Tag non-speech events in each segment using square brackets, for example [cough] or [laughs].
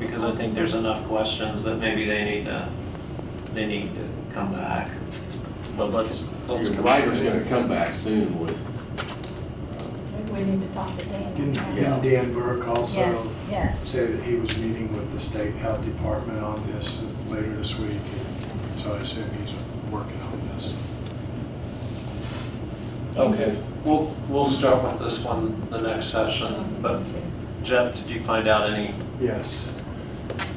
I think there's enough questions that maybe they need to, they need to come back. But let's, let's. Your writer's gonna come back soon with, Maybe we need to talk to Dan. And Yeah. and Dan Burke also Yes, yes. said that he was meeting with the state health department on this later this week. So I assume he's working on this. Okay, we'll, we'll start with this one the next session, but Jeff, did you find out any? Yes.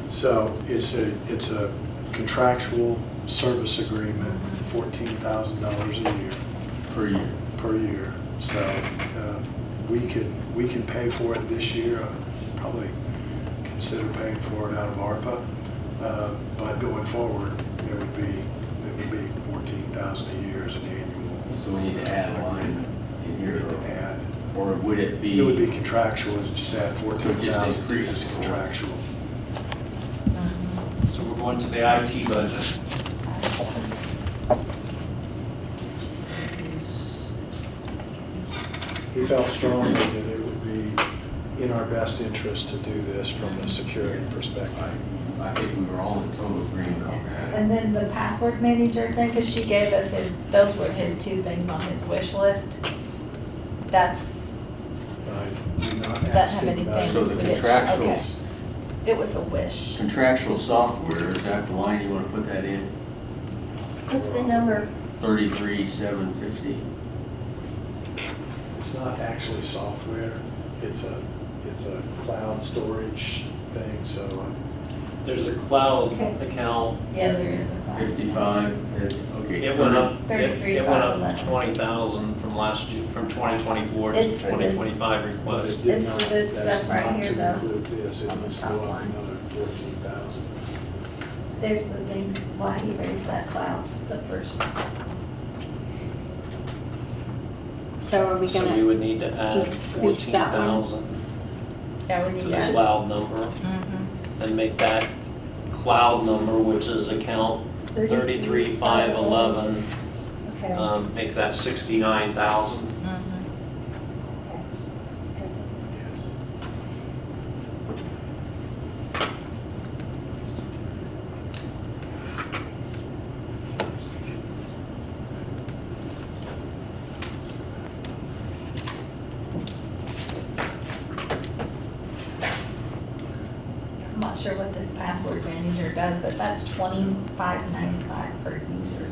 So it's a, it's a contractual service agreement, fourteen thousand dollars a year, per year. per year. So uh, we can, we can pay for it this year, I'd probably consider paying for it out of ARPA. Uh, But going forward, it would be, it would be fourteen thousand a year as an annual. So we need to add a line in We here, need to add. or would it be? It would be contractual, just add fourteen thousand to increase. this contractual. So we're going to the IT budget. He felt strongly that it would be in our best interest to do this from a security perspective. I I think we were all in total agreement on that. And then the password manager thing, because she gave us his, those were his two things on his wish list. That's, I did not Doesn't ask have him about anything. So the We did- contractual, okay. it was a wish. contractual software, is that the line you wanna put that in? What's the number? Thirty-three, seven fifty? It's not actually software, it's a, it's a cloud storage thing, so uh, There's a cloud Okay. account. Yeah, there is a class. Fifty-five, okay. It went up, it Thirty-three it went up thousand. twenty thousand from last year, from twenty twenty-four to It's for twenty this. twenty-five but request. it did It's not, for this that's stuff right not here, to though. include this, it On the must top go up line. another fourteen thousand. There's the things, why he raised that cloud, the first. So are we So we gonna, would need to add increase fourteen that one? thousand Yeah, we to need the that. Mm-hmm. cloud number and make that cloud number, which is account thirty-three five eleven, okay. um, make that sixty-nine thousand. I'm not sure what this password manager does, but that's twenty-five ninety-five per user.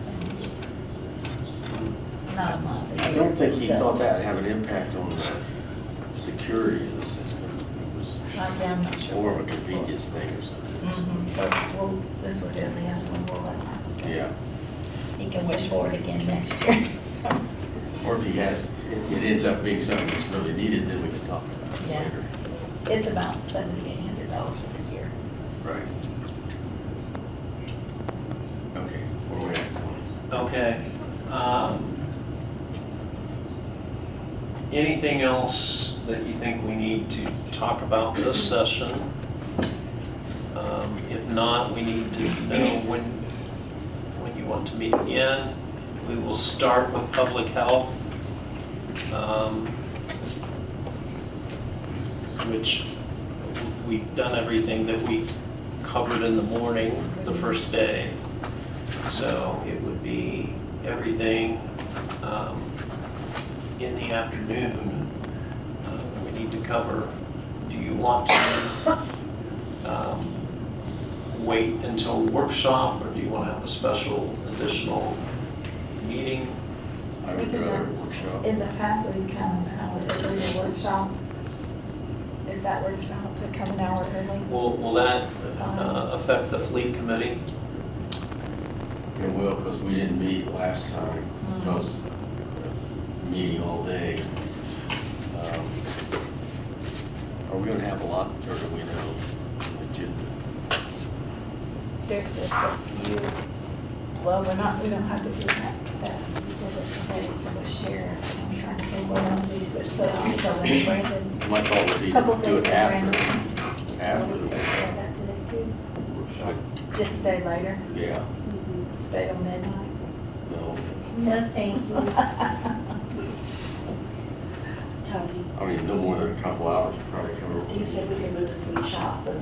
Not a month. it's I don't think he still. thought that would have an impact on the security of the system. It was Yeah, I'm not sure. more of what a this convenience thing or something. Mm-hmm. Mhm, so, well, since we're doing the other one, we'll let that. go. Yeah, He can wish for it again next year. [laughs] or if he has, it ends up being something that's really needed, then we can talk about it Yeah. later. It's about seventy-eight hundred dollars a year. Right. Okay, where we at? Okay. um, Anything else that you think we need to talk about this session? Um, If not, we need to know when, when you want to meet again. We will start with public health, um, which we've done everything that we covered in the morning, the first day. So it would be everything um, in the afternoon uh, that we need to cover. Do you want to um, wait until workshop, or do you want to have a special additional meeting? I would rather workshop. In the past, we've come an hour early to workshop. If that works out, to come an hour early. Will, will that uh, affect the fleet committee? It will, because we didn't meet last time, Mm. because meeting all day. Um, Are we gonna have a lot, or do we know? Agenda? There's just a few, well, we're not, we don't have to do that, that, we did it today for the sheriffs. I'm trying to think what else we should put on, so when Brandon. My thought would be Couple to do it things, after, after the We just workshop. said that today too. Like, Just stay later, Yeah, stay till midnight. no, No, thank you. Tony, [laughs] I mean, no more than a couple hours would probably cover. what we Steve said we could move to food shop, but